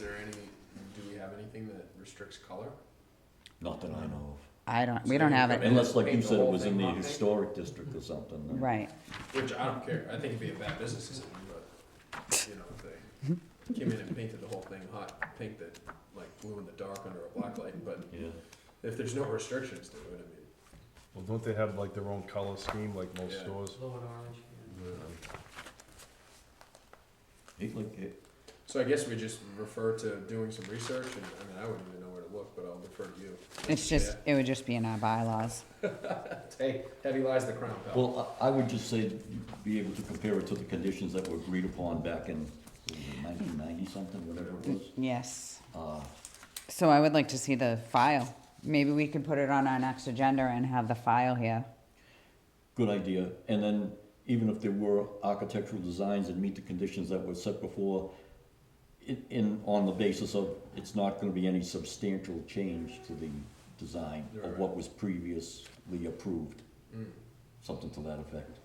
Is there any, do we have anything that restricts color? Not that I know I don't, we So don't you have put of. it, in- Unless, like you Paint the said, it whole was in thing the black. historic district or something. then- right. Which I don't care. I think it'd be a bad business decision, but, you know, if they came in and painted the whole thing hot pink that, like, blue in the dark under a black light, but Yeah, if there's no restrictions to it, I mean. Well, don't they have like their own color scheme like most Yeah. stores? Blue and orange, yeah. It like, it- So I guess we just refer to doing some research, and, I mean, I wouldn't even know where to look, but I'll defer to you. It's just, it would just be in our bylaws. Hey, heavy lies the crown, pal. well, I, I would just say, be able to compare it to the conditions that were agreed upon back in nineteen ninety something, whatever it was. Yes. Uh, So I would like to see the file. Maybe we could put it on our next agenda and have the file here. Good idea, and then even if there were architectural designs that meet the conditions that were set before, in, in, on the basis of, it's not gonna be any substantial change to the design of what was previously approved, Mm. something to that effect.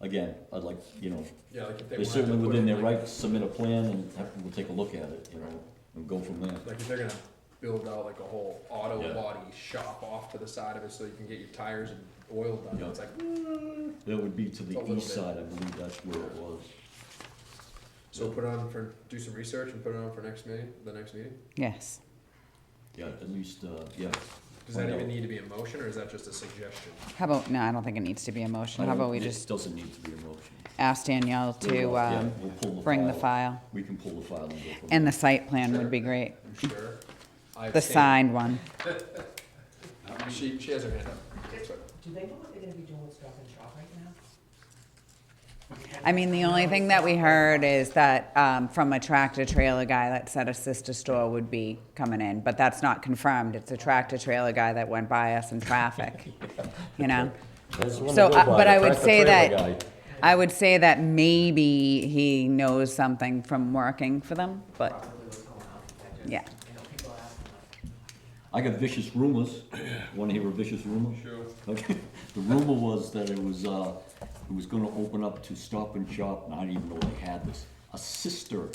Again, I'd like, you know, Yeah, like if they they're wanted to certainly put within in, their like- right to submit a plan and have, we'll take a look at it, you know, and go from there. Like if they're gonna build out like a whole auto Yeah. body shop off to the side of it so you can get your tires and oil done, Yeah. it's like, That would be to A the little east bit. side, I believe that's where it was. so put on for, do some research and put it on for next meeting, the next meeting? Yes. Yeah, at least, uh, yeah. Does that Find even out. need to be a motion or is that just a suggestion? How about, no, I don't think it needs to be a motion. I How don't- about we it just Doesn't need to be a motion. ask Danielle to, Yeah, um, we'll pull bring the file? We can pull the file and go from And the there. site plan would be great. I'm sure. I The abstain. signed one. She, she has her hand up. So- Do they know what they're gonna be doing with Stop and Shop right now? I mean, the only thing that we heard is that um, from a tractor trailer guy that said a sister store would be coming in, but that's not confirmed. It's a tractor trailer guy that went by us in traffic, you know? So, I- but I would say that, I would say that maybe he knows something from working for them, but Probably what's going on. I just- Yeah. I know people ask. I got vicious rumors. Want to hear a vicious rumor? Sure. Okay. The rumor was that it was, uh, it was gonna open up to Stop and Shop, and I didn't even know they had this, a sister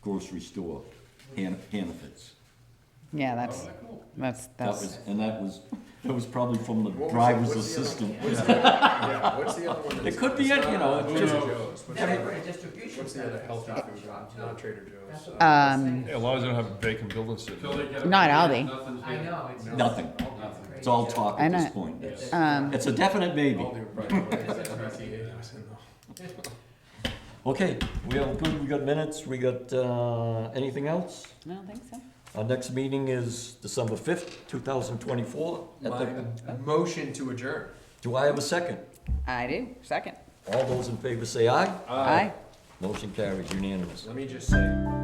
grocery store, Han- Hannaford's. yeah, that's, that's, That that's, was, and that was, that was probably from the What was the- driver's what's the other- assistant. What's the, yeah, what's the other one? that's- could be it's it, not you know, it's Trader just- Joe's. What's Then the I put other- a distribution. What's the other center healthy for Stop and food, Shop, too. not Trader That's Joe's? what I was Um, saying. Yeah, a lot of them have vacant buildings sitting there. not Aldi. I know, it's. Nothing. crazy. It's all talk I at know. this point. It's, Um, it's a definite maybe. All the right- Okay, we have, good, we got minutes, we got, uh, anything else? I don't think so. Our next meeting is December fifth, two thousand twenty-four. My motion to adjourn. Do I have a second? I do, second. All those in favor say aye. Aye. Motion carries unanimous. Let me just say.